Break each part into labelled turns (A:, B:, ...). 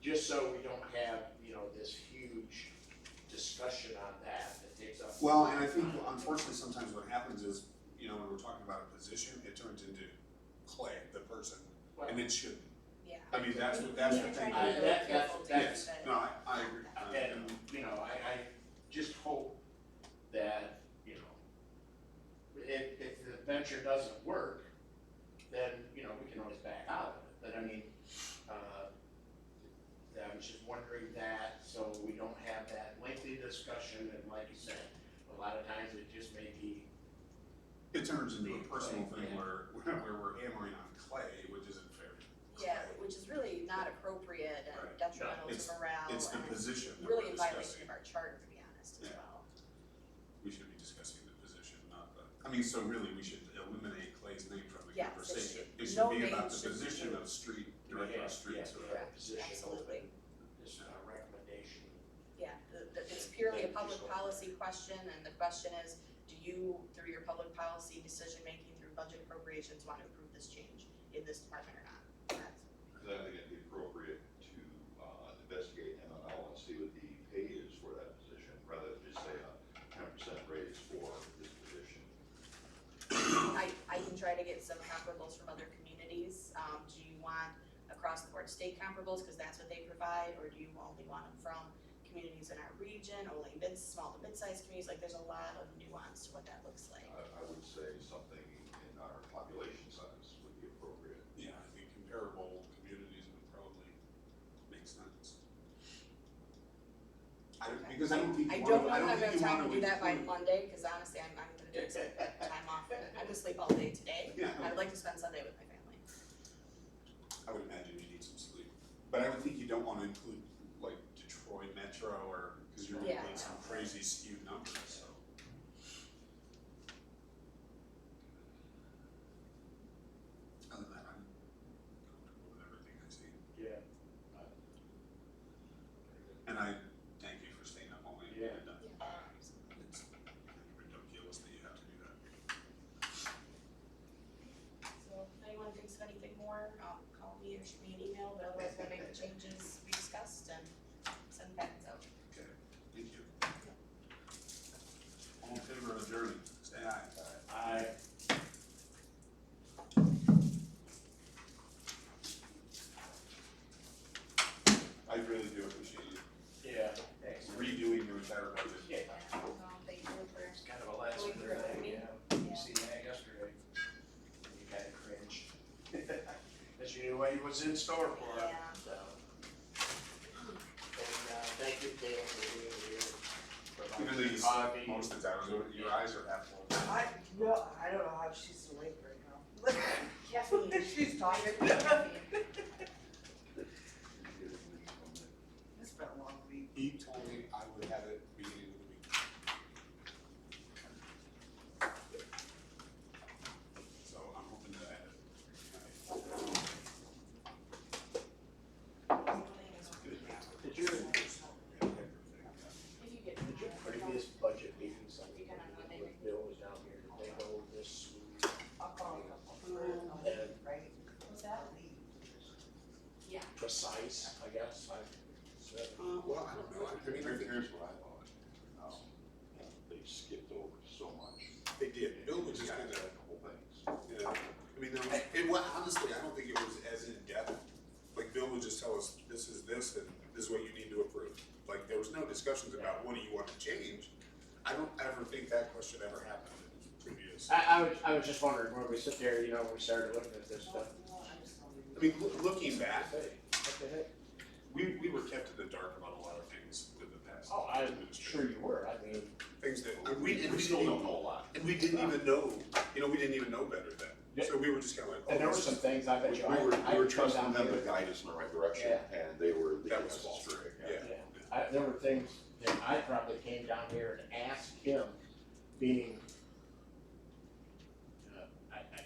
A: just so we don't have, you know, this huge discussion on that that takes up.
B: Well, and I think unfortunately, sometimes what happens is, you know, when we're talking about a position, it turns into Clay, the person, and it shouldn't.
C: Yeah.
B: I mean, that's what, that's the thing.
A: I-
B: that-
A: that- that-
B: Yes, no, I, I agree. Um, I-
A: And, you know, I, I just hope that, you know, if, if the venture doesn't work, then, you know, we can always back out of it, but I mean, uh, I was just wondering that, so we don't have that lengthy discussion, and like you said, a lot of times it just may be,
B: It turns into a personal
A: Clay,
B: thing
A: yeah.
B: where, where we're hammering on Clay, which isn't fair.
C: Yeah, which is really not appropriate
B: Right.
C: and detrimental
B: It's-
C: to morale
B: It's the
C: and
B: position that
C: really
B: we're
C: in
B: discussing.
C: violation of our charter, to be honest, as
B: Yeah.
C: well.
B: We should be discussing the position, not the, I mean, so really, we should eliminate Clay's name from the
C: Yes, it
B: conversation.
C: should-
B: It
C: no
B: should be
C: name
B: about the
C: should be
B: position
C: used.
B: of street,
A: Yeah,
B: director
A: yeah,
B: of streets,
A: yeah.
B: or
C: Correct,
A: position
C: absolutely.
A: this uh, recommendation.
C: Yeah, the- the- it's purely a public
A: Sure.
C: policy question, and the question is, do you, through your public policy decision-making through budget appropriations, want to approve this change in this department or not? That's-
D: Cause I think it'd be appropriate to, uh, investigate MML and see what the pay is for that position, rather than just say a ten percent raise for this position.
C: I, I can try to get some comparables from other communities. Um, do you want across-the-board state comparables, because that's what they provide, or do you only want them from communities in our region, only mid, small to mid-sized communities? Like, there's a lot of nuance to what that looks like.
D: I, I would say something in our population size would be appropriate.
B: Yeah, I think comparable communities would probably make sense. I don't, because I don't think
C: I
B: you
C: don't
B: wanna,
C: know
B: I
C: if
B: don't
C: I'm
B: think
C: gonna
B: you
C: time
B: wanna
C: to do that by
B: include.
C: Monday, cause honestly, I'm, I'm gonna take some time off, I'm gonna sleep all day today.
B: Yeah,
C: I would like to spend Sunday with my family.
B: I would imagine you need some sleep, but I would think you don't wanna include like Detroit Metro or, cause you're gonna
C: Yeah.
B: get some crazy skewed numbers, so. Other than that, I'm comfortable with everything I see,
A: Yeah.
B: and I thank you for staying up all night.
A: Yeah.
B: And, uh, It's ridiculous that you have to do that.
C: So if anyone thinks of anything more, um, call me or shoot me an email, but otherwise we'll make the changes we discussed and send back out.
B: Thank you. All in favor of adjourned, say aye.
A: I
B: I really do appreciate you
A: Yeah, thanks.
B: redoing your entire budget.
A: Yeah,
C: Um, thank you for,
A: it's kind of a last
C: Going
A: minute
C: through
A: thing,
C: it.
A: yeah. You
C: Yeah.
A: seen that yesterday? and You kind of cringe. But you knew what he was in store for.
C: yeah.
A: So. And, uh, thank you, Dale, for being here.
B: Even though
A: providing
B: you
A: coffee.
B: sleep most of the time, your eyes are half full.
E: I no, I don't know how she's awake right now.
C: Caffeine.
E: She's tired. It's been a long week.
B: He told me I would have it beginning of the week. So I'm hoping that I have it. All
A: Did your,
B: right.
C: If you get.
A: did your previous budget meeting, something
C: You can on Monday.
A: with Bill was down here, did they go this smooth?
E: I'll call you. I'll leave, Right?
C: Mm-hmm. What's that?
E: I'll leave.
C: Yeah.
A: precise, I guess, I.
B: Uh, well, I don't know, I mean, I
D: Here-
B: think
D: Here's what I thought, um, they skipped over so much.
B: they did, Bill was just
D: Yeah,
B: kinda,
D: A couple things.
B: you know, I mean, there was, it was, honestly, I don't think it was as in depth. Like Bill would just tell us, this is this and this is what you need to approve. Like, there was no discussions about what do you want to change. I don't ever think that question ever happened in previous.
A: I, I was, I was just wondering, when we sit there, you know, when we started looking at this
E: No,
A: stuff.
E: no, I'm just gonna leave.
B: I mean, loo- looking back,
A: Hey, what the heck?
B: we, we were kept in the dark about a lot of things with the past.
A: Oh, I'm sure
B: administration.
A: you were, I mean,
B: Things that, and we, and we
D: still
B: didn't,
D: don't know
B: even-
D: a lot.
B: and we didn't even know, you know, we didn't even know better then.
A: Yeah.
B: So we were just kinda like, oh,
A: and there were
B: this
A: some
B: is-
A: things I
D: We
A: bet
D: we
A: you I, I
D: were, we were
A: could come
D: trusting
A: down
D: them to
A: here.
D: guide us in the right direction, and they were leading
B: That was
D: us
B: false,
D: astray.
B: yeah.
A: Yeah, I, there were things that I probably came down here and asked him, being, uh, I, I,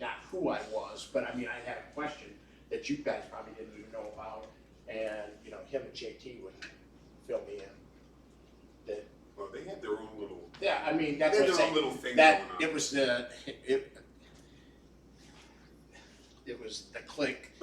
A: not who I was, but I mean, I had a question that you guys probably didn't even know about, and, you know, him and JT would fill me in.
B: Well, they had their own little,
A: Yeah, I mean,
B: they
A: that's
B: had
A: what I'm
B: their
A: saying,
B: own little thing going
A: that,
B: on.
A: it was the, it, it was the click